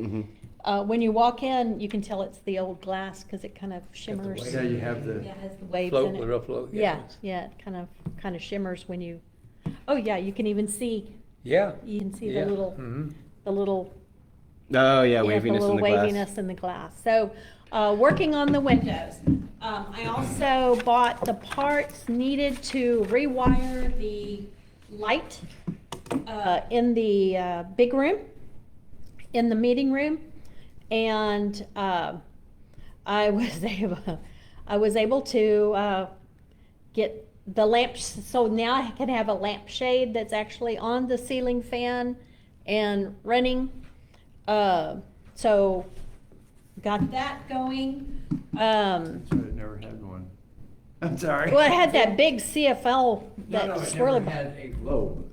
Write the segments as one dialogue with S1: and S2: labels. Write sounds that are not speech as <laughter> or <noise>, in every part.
S1: Mm-hmm.
S2: Uh, when you walk in, you can tell it's the old glass because it kind of shimmers.
S3: Yeah, you have the.
S2: Yeah, it has the waves
S4: Float,
S2: in
S4: the
S2: it.
S4: real float.
S2: Yeah, yeah, it kind of, kind of shimmers when you, oh yeah, you can even see,
S4: Yeah.
S2: you can see
S4: yeah,
S2: the little,
S4: mhm.
S2: the little.
S1: Oh, yeah,
S2: yeah,
S1: waviness in the
S2: little
S1: glass.
S2: waviness in the glass. So, uh, working on the windows. Um, I also bought the parts needed to rewire the light, uh, in the, uh, big room, in the meeting room. And, uh, I was <laughs> able, I was able to, uh, get the lamps, so now I can have a lampshade that's actually on the ceiling fan and running. Uh, so got that going. Um,
S3: That's right, I never had one. I'm sorry.
S2: well, it had that big CFL,
S3: No,
S2: that
S3: no, it never
S2: swirly.
S3: had a globe.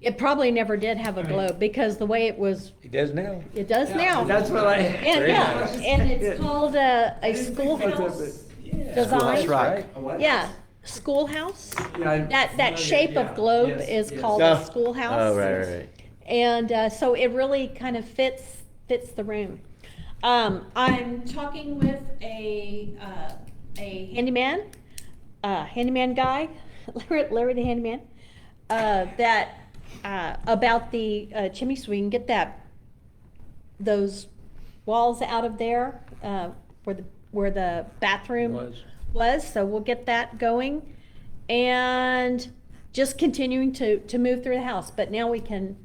S2: It probably never did have a globe because the way it was,
S4: He does now.
S2: it does now.
S3: That's what I.
S2: And,
S4: Very
S2: yeah,
S4: nice.
S2: and it's
S3: Yeah.
S2: called a,
S3: I
S2: a
S3: didn't think about that,
S2: schoolhouse
S3: but- yeah.
S1: That's
S2: design.
S1: right.
S3: A what?
S2: Yeah, schoolhouse.
S3: Yeah,
S2: That,
S3: I'm
S2: that
S3: familiar,
S2: shape
S3: yeah,
S2: of globe
S3: yes,
S2: is
S3: yes.
S2: called
S1: Oh.
S2: a schoolhouse.
S1: Oh, right, right, right.
S2: And uh, so it really kind of fits fits the room. Um, I'm talking with a uh, a handyman, uh, handyman guy, <laughs> Larry, Larry the handyman, uh, that uh, about the uh, chimney so we can get that those walls out of there uh, where the where the bathroom
S4: Was.
S2: was, so we'll get that going. And just continuing to, to move through the house, but now we can,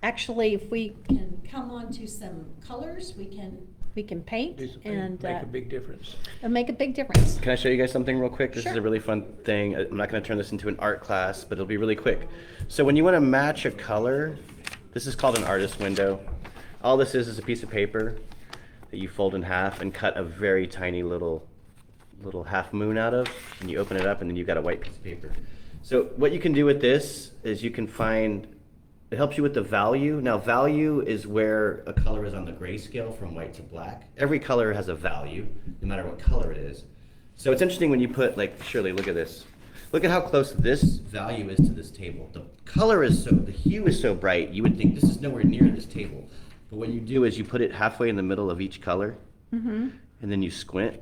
S2: actually, if we can come on to some colors, we can, we can paint
S4: Do something,
S2: and,
S4: Make
S2: uh,
S4: a big difference.
S2: and make a big difference.
S1: Can I show you guys something real quick? This is
S2: Sure.
S1: a really fun thing. I- I'm not going to turn this into an art class, but it'll be really quick. So when you want to match a color, this is called an artist window. All this is is a piece of paper that you fold in half and cut a very tiny little little half moon out of, and you open it up, and then you've got a white piece of paper. So what you can do with this is you can find. It helps you with the value. Now, value is where a color is on the grayscale from white to black. Every color has a value, no matter what color it is. So it's interesting when you put like Shirley. Look at this. Look at how close this value is to this table. The color is so, the hue is so bright. You would think this is nowhere near this table, but what you do is you put it halfway in the middle of each color, and then you squint.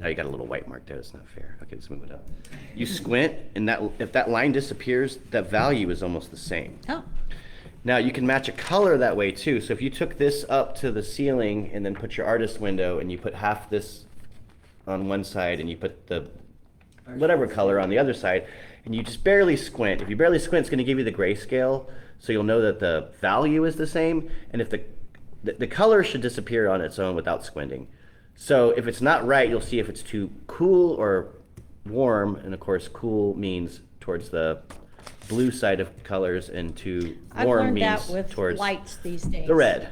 S1: Now you got a little white mark there. That's not fair. Okay, let's move it up. You squint, and that if that line disappears, that value is almost the same.
S2: Oh,
S1: Now you can match a color that way too. So if you took this up to the ceiling and then put your artist window and you put half this on one side and you put the whatever color on the other side and you just barely squint. If you barely squint, it's going to give you the grayscale. So you'll know that the value is the same and if the the, the color should disappear on its own without squinting. So if it's not right, you'll see if it's too cool or warm and of course cool means towards the blue side of colors and too
S2: I've
S1: warm
S2: learned that
S1: means
S2: with
S1: towards
S2: lights these days. Mm.
S1: the red.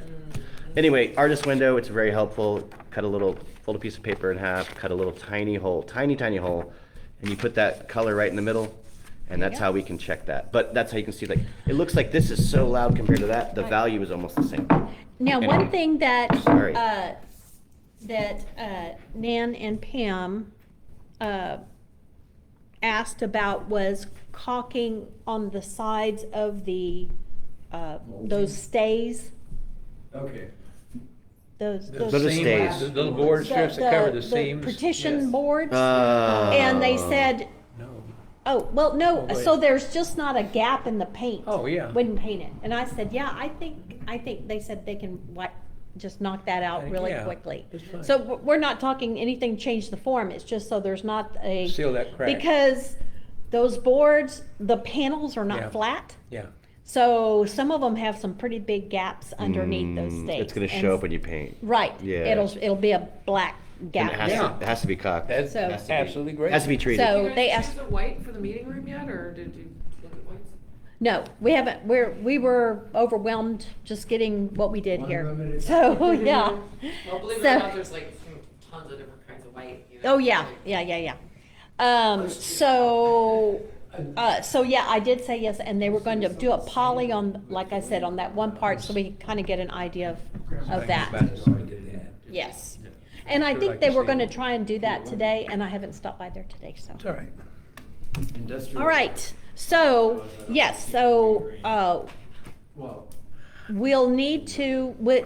S1: Anyway, artist window, it's very helpful. Cut a little, fold a piece of paper in half, cut a little tiny hole, tiny, tiny hole, and you put that color right in the middle. And
S2: There you
S1: that's
S2: go.
S1: how we can check that. But that's how you can see like, it looks like this is so loud compared to that, the
S2: Right.
S1: value is almost the same.
S2: Now,
S1: Anyway.
S2: one thing that,
S1: Sorry.
S2: uh, that uh, Nan and Pam uh, asked about was caulking on the sides of the, uh, those stays,
S3: Okay.
S2: those, those.
S1: Those are
S4: seam-
S1: stays.
S4: The little board strips that cover the seams.
S2: Partition
S3: Yes.
S2: boards,
S1: Uh,
S2: and they said,
S4: No.
S2: oh, well, no,
S4: Oh, wait.
S2: so there's just not a gap in the paint.
S4: Oh, yeah.
S2: Wouldn't paint it, and I said, yeah, I think, I think, they said they can, what, just knock that out
S4: Like,
S2: really
S4: yeah,
S2: quickly.
S4: it's fine.
S2: So w- we're not talking anything change the form, it's just so there's not a.
S4: Seal that crack.
S2: Because those boards, the panels are
S4: Yeah.
S2: not flat,
S4: Yeah.
S2: so some of them have some pretty big gaps underneath those
S1: Mm,
S2: stakes.
S1: It's gonna
S2: and
S1: show
S2: s-
S1: up when you paint.
S2: Right.
S1: Yeah.
S2: It'll, it'll be a black
S1: And
S2: gap.
S1: it has
S4: Yeah.
S1: to, it has to be cocked.
S4: That's
S2: So-
S1: Has to be-
S4: absolutely great.
S1: Has to be treated.
S2: So-
S5: You guys
S2: they
S5: choose
S2: asked-
S5: the white for the meeting room yet, or did you look at whites?
S2: No, we haven't, we're, we were overwhelmed just getting what we did here. <laughs>
S3: Unlimited.
S2: So, yeah.
S5: Well, believe it
S2: So-
S5: or not, there's like tons of different kinds of white. you know,
S2: Oh, yeah,
S5: like-
S2: yeah, yeah, yeah. Um, so, uh, so yeah, I did say yes, and they were going to do a poly on, like I said, on that one part, so we kind of get an idea of, of that. Yes. And I think they were going to try and do that today, and I haven't stopped by there today, so.
S4: It's all right.
S3: Industrial.
S2: All right, so, yes, so, uh,
S3: Well,
S2: we'll need to, we-